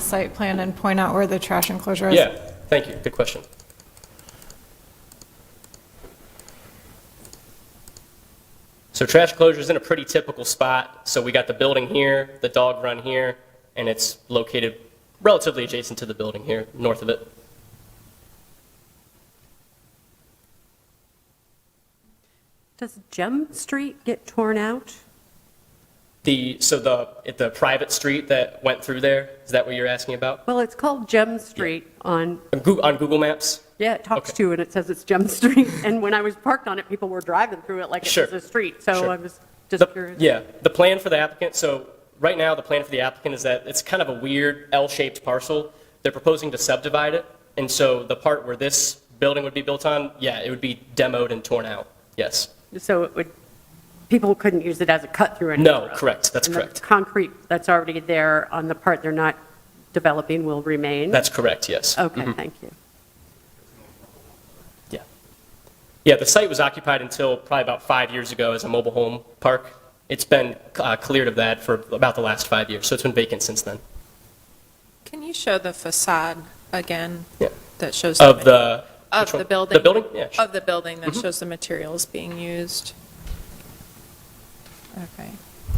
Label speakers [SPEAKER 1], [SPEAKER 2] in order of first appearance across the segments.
[SPEAKER 1] site plan and point out where the trash enclosure is?
[SPEAKER 2] Yeah, thank you, good question. So trash closure is in a pretty typical spot, so we got the building here, the dog run here, and it's located relatively adjacent to the building here, north of it.
[SPEAKER 3] Does Gem Street get torn out?
[SPEAKER 2] The, so the, it- the private street that went through there, is that what you're asking about?
[SPEAKER 3] Well, it's called Gem Street on,
[SPEAKER 2] On Goo- on Google Maps?
[SPEAKER 3] yeah, it talks
[SPEAKER 2] Okay.
[SPEAKER 3] to and it says it's Gem Street. And when I was parked on it, people were driving through it like it
[SPEAKER 2] Sure.
[SPEAKER 3] was a street.
[SPEAKER 2] Sure.
[SPEAKER 3] So I was
[SPEAKER 2] The-
[SPEAKER 3] just curious.
[SPEAKER 2] Yeah, the plan for the applicant, so right now, the plan for the applicant is that it's kind of a weird L-shaped parcel. They're proposing to subdivide it, and so the part where this building would be built on, yeah, it would be demoed and torn out, yes.
[SPEAKER 3] So it would, people couldn't use it as a cut through anymore?
[SPEAKER 2] No, correct, that's
[SPEAKER 3] And the
[SPEAKER 2] correct.
[SPEAKER 3] Concrete that's already there on the part they're not developing will remain?
[SPEAKER 2] That's Mm-hmm. correct, yes.
[SPEAKER 3] Okay, thank you.
[SPEAKER 2] Yeah. Yeah, the site was occupied until probably about five years ago as a mobile home park. It's been uh, cleared of that for about the last five years, so it's been vacant since then.
[SPEAKER 1] Can you show the facade again?
[SPEAKER 2] Yeah.
[SPEAKER 1] That shows.
[SPEAKER 2] Of the...
[SPEAKER 1] Of
[SPEAKER 2] which one?
[SPEAKER 1] the building.
[SPEAKER 2] The building, yeah. sure. Mm-hmm.
[SPEAKER 1] Of the building that shows the materials being used. Okay.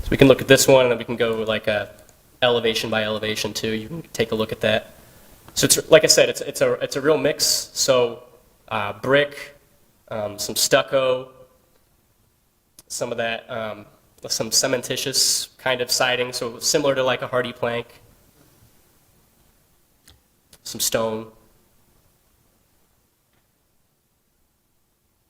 [SPEAKER 2] So we can look at this one, and then we can go like uh, elevation by elevation too. You can take a look at that. So it's, like I said, it's, it's a, it's a real mix, so uh, brick, um, some stucco, some of that, um, some cementitious kind of siding, so similar to like a hardy plank, some stone.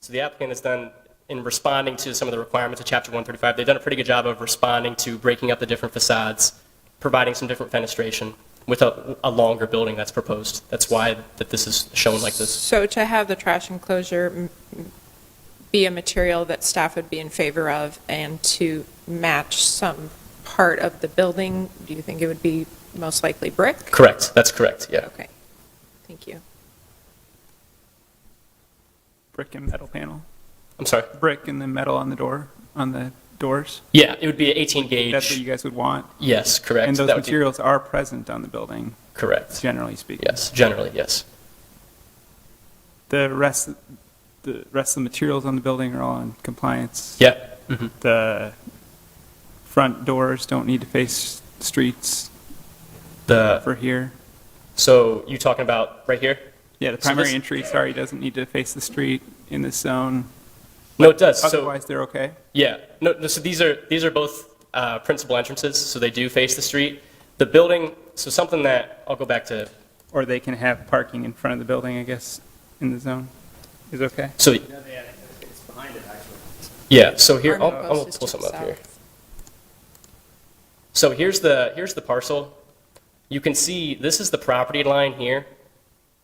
[SPEAKER 2] So the applicant has done, in responding to some of the requirements of Chapter 135, they've done a pretty good job of responding to breaking up the different facades, providing some different fenestration with a, a longer building that's proposed. That's why that this is shown like this.
[SPEAKER 1] So to have the trash enclosure m- m- be a material that staff would be in favor of and to match some part of the building, do you think it would be most likely brick?
[SPEAKER 2] Correct, that's correct, yeah.
[SPEAKER 1] Okay, thank you.
[SPEAKER 4] brick and metal panel,
[SPEAKER 2] I'm sorry.
[SPEAKER 4] brick and then metal on the door, on the doors.
[SPEAKER 2] Yeah, it would be an 18 gauge.
[SPEAKER 4] That's what you guys would want.
[SPEAKER 2] Yes, correct.
[SPEAKER 4] And those
[SPEAKER 2] That would be-
[SPEAKER 4] materials are present on the building,
[SPEAKER 2] Correct.
[SPEAKER 4] generally speaking.
[SPEAKER 2] Yes, generally, yes.
[SPEAKER 4] The rest, the rest of the materials on the building are all in compliance.
[SPEAKER 2] Yeah.
[SPEAKER 4] Mm-hmm. The front doors don't need to face streets
[SPEAKER 2] The,
[SPEAKER 4] for here.
[SPEAKER 2] so you talking about right here?
[SPEAKER 4] Yeah, the
[SPEAKER 2] So this-
[SPEAKER 4] primary entry, sorry, doesn't need to face the street in this zone.
[SPEAKER 2] No, it does. So,
[SPEAKER 4] Otherwise, they're okay.
[SPEAKER 2] yeah. No, no, so these are, these are both uh, principal entrances, so they do face the street. The building, so something that, I'll go back to,
[SPEAKER 4] Or they can have parking in front of the building, I guess, in the zone is okay.
[SPEAKER 2] so,
[SPEAKER 5] It's behind it, actually.
[SPEAKER 2] yeah, so here, I'll,
[SPEAKER 1] Army post
[SPEAKER 2] I'll
[SPEAKER 1] is
[SPEAKER 2] pull
[SPEAKER 1] to
[SPEAKER 2] some
[SPEAKER 1] the
[SPEAKER 2] up here.
[SPEAKER 1] south.
[SPEAKER 2] So here's the, here's the parcel. You can see, this is the property line here.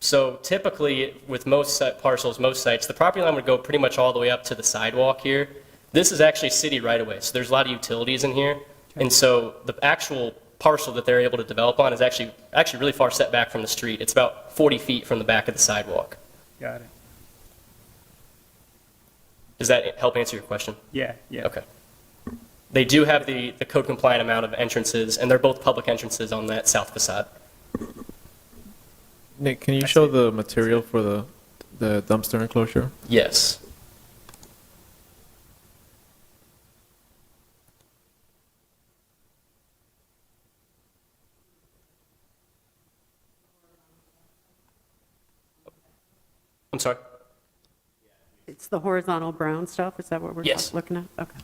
[SPEAKER 2] So typically, with most site- parcels, most sites, the property line would go pretty much all the way up to the sidewalk here. This is actually city right-of-way, so there's a lot of utilities in here. And so the actual parcel that they're able to develop on is actually, actually really far set back from the street. It's about 40 feet from the back of the sidewalk.
[SPEAKER 4] Got it.
[SPEAKER 2] Does that help answer your question?
[SPEAKER 4] Yeah, yeah.
[SPEAKER 2] Okay. They do have the, the code compliant amount of entrances, and they're both public entrances on that south facade.
[SPEAKER 6] Nick, can you show the material for the, the dumpster enclosure?
[SPEAKER 2] Yes. I'm sorry?
[SPEAKER 3] It's the horizontal brown stuff, is that what we're
[SPEAKER 2] Yes.
[SPEAKER 3] looking at? Okay.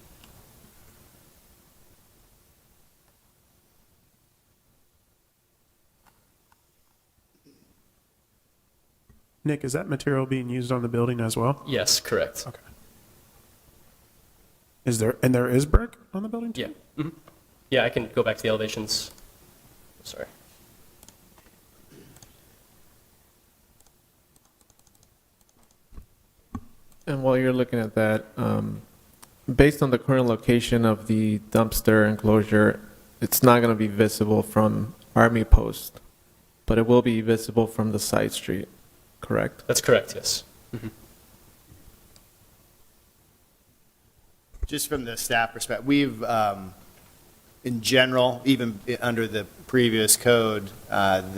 [SPEAKER 7] Nick, is that material being used on the building as well?
[SPEAKER 2] Yes, correct.
[SPEAKER 7] Okay. Is there, and there is brick on the building? too?
[SPEAKER 2] Yeah. Mhm. Yeah, I can go back to the elevations. Sorry.
[SPEAKER 6] And while you're looking at that, um, based on the current location of the dumpster enclosure, it's not going to be visible from Army Post, but it will be visible from the side street, correct?
[SPEAKER 2] That's correct, yes.
[SPEAKER 5] Just from the staff perspective, we've, um,
[SPEAKER 8] in general, even i- under the previous code, uh,